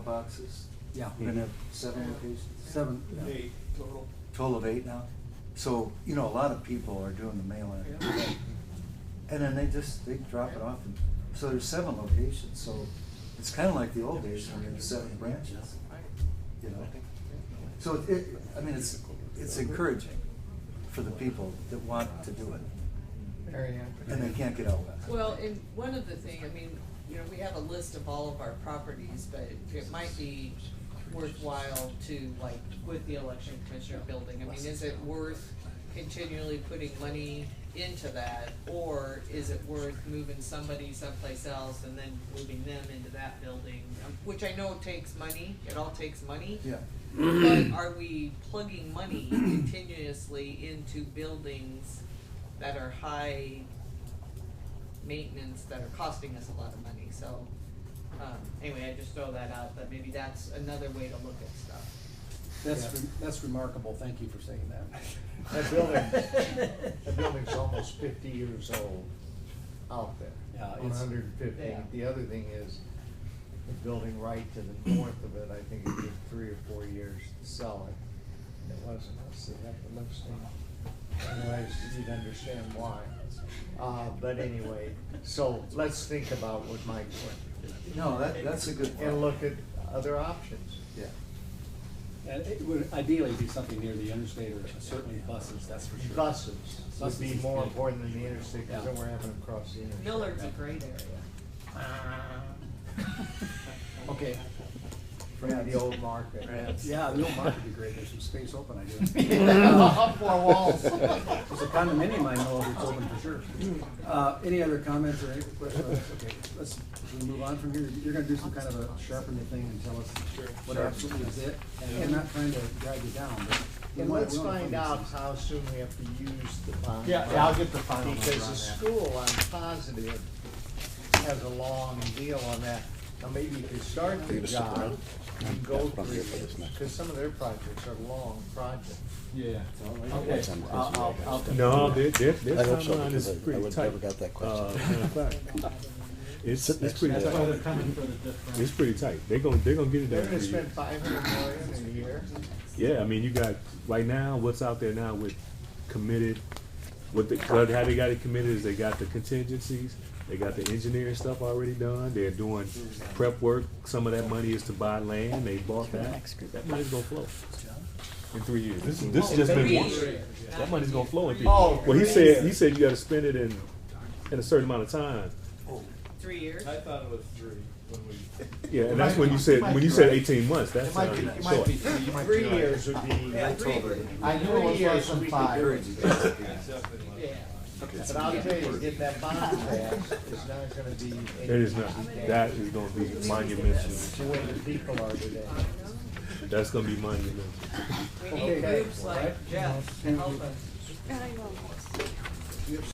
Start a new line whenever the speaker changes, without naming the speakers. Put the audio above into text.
boxes?
Yeah,
We're
we're
gonna
gonna
have seven locations?
Seven, yeah.
Eight total.
Total of eight now? So, you know, a lot of people are doing the mail-in.
Yeah.
And then they just, they drop it off and, so there's seven locations, so it's kinda like the old days when we had seven branches, you know? So it- it, I mean, it's, it's encouraging for the people that want to do it,
Very
and they can't get out of it.
Well, and one of the thing, I mean, you know, we have a list of all of our properties, but it might be worthwhile to, like, with the election commissioner building, I mean, is it worth continually putting money into that? Or is it worth moving somebody someplace else and then moving them into that building? Um, Which I know takes money, it all takes money.
Yeah,
But are we plugging money continuously into buildings that are high maintenance, that are costing us a lot of money, so, um, anyway, I just throw that out, but maybe that's another way to look at stuff.
That's, re- that's remarkable, thank you for saying that.
That building, that building's almost fifty years old out there.
Yeah,
One
it's-
hundred and fifty.
Yeah.
The other thing is, the building right to the north of it, I think it took three or four years to sell it. It wasn't us that had the listing. Anyways, you'd understand why. Uh, but anyway, so let's think about what Mike went
no, that, that's a good
and
point,
look at other options.
yeah.
And it would ideally be something near the interstate or certainly buses, that's for sure.
Buses would
Buses
be
is
more
big.
important than the interstate, because then we're having to cross the interstate.
Millard's a great area.
Okay. From the old market.
Perhaps.
Yeah, the old market would be great, there's some space open, I guess.
Four walls.
There's a condominium I know of that's open for sure. Uh, any other comments or any questions? Okay, let's, we move on from here? You're gonna do some kind of a sharpen the thing and tell us what absolutely is it? And I'm not trying to drag you down, but. we
And
want-
let's
we want
find
to
out
find this.
how soon we have to use the bond.
Yeah, yeah, I'll get the final number
Because
on
the
that.
school, I'm positive, has a long deal on that. Now, maybe you could start the
Leave us some
job
room.
and go
Yeah, probably for
through
this
it,
next.
because some of their projects are long projects.
Yeah.
That's
Okay,
on- that's
I'll, I'll,
on-
I'll.
No, their, their,
I
their
hope so,
timeline
because
is
I- I
pretty
would-
tight.
never got that question.
Uh, matter of fact, It's, it's pretty
That's why they're
tight.
coming for the different.
It's pretty tight. They're gonna, they're gonna get it
They're
done.
gonna
for you.
spend five hundred million in a year.
Yeah, I mean, you got, right now, what's out there now with committed, what the, how they got it committed is they got the contingencies, they got the engineering stuff already done, they're doing prep work. Some of that money is to buy land, they bought that. That money's gonna flow in three years. This, this has just been one. That money's gonna flow in three.
Oh,
Well, he said, he said you gotta spend it in, in a certain amount of time.
Three years?
I thought it was three when we.
Yeah, and that's when you said, when you said eighteen months, that
It might be,
sounded
it might
short.
be, three years would be,
I told her,
I knew it was less than five.
encourage you guys to do that.
It's definitely like-
Yeah.
But I'll tell you, if that bond passed, it's not gonna be.
It is not, that is gonna be monumental,
The way the people are today.
that's gonna be monumental.
We need
Okay.
groups like Jeff to help us.